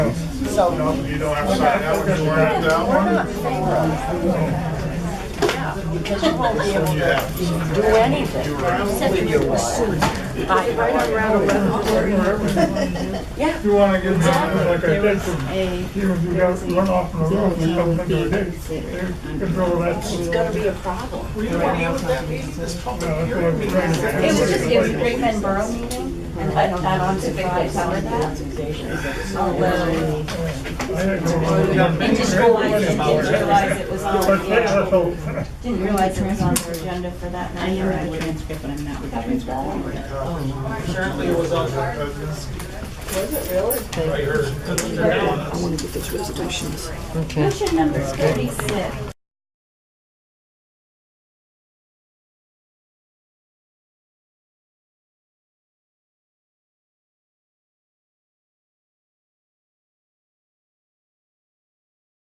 So. No, you don't have to sign that one, you don't have that We're one. not in favor of it. Yeah, because you won't be able You to have to sign do anything with your water. I- Yeah, You wanna get something like I There did was from, a, you know, you got runoff from the roof, you come into a being dig, considered you under. control that. it's gonna be a problem. It was just, it was a It Great Bend Borough meeting, and I don't, I'm surprised how that. Oh, Didn't just realize, didn't realize it was on, yeah, didn't realize it was on their agenda for that I night. or am the anything. transcript, but I'm not Oh, the transcript. Apparently it was on. Was it really? I heard. Motion number thirty-six,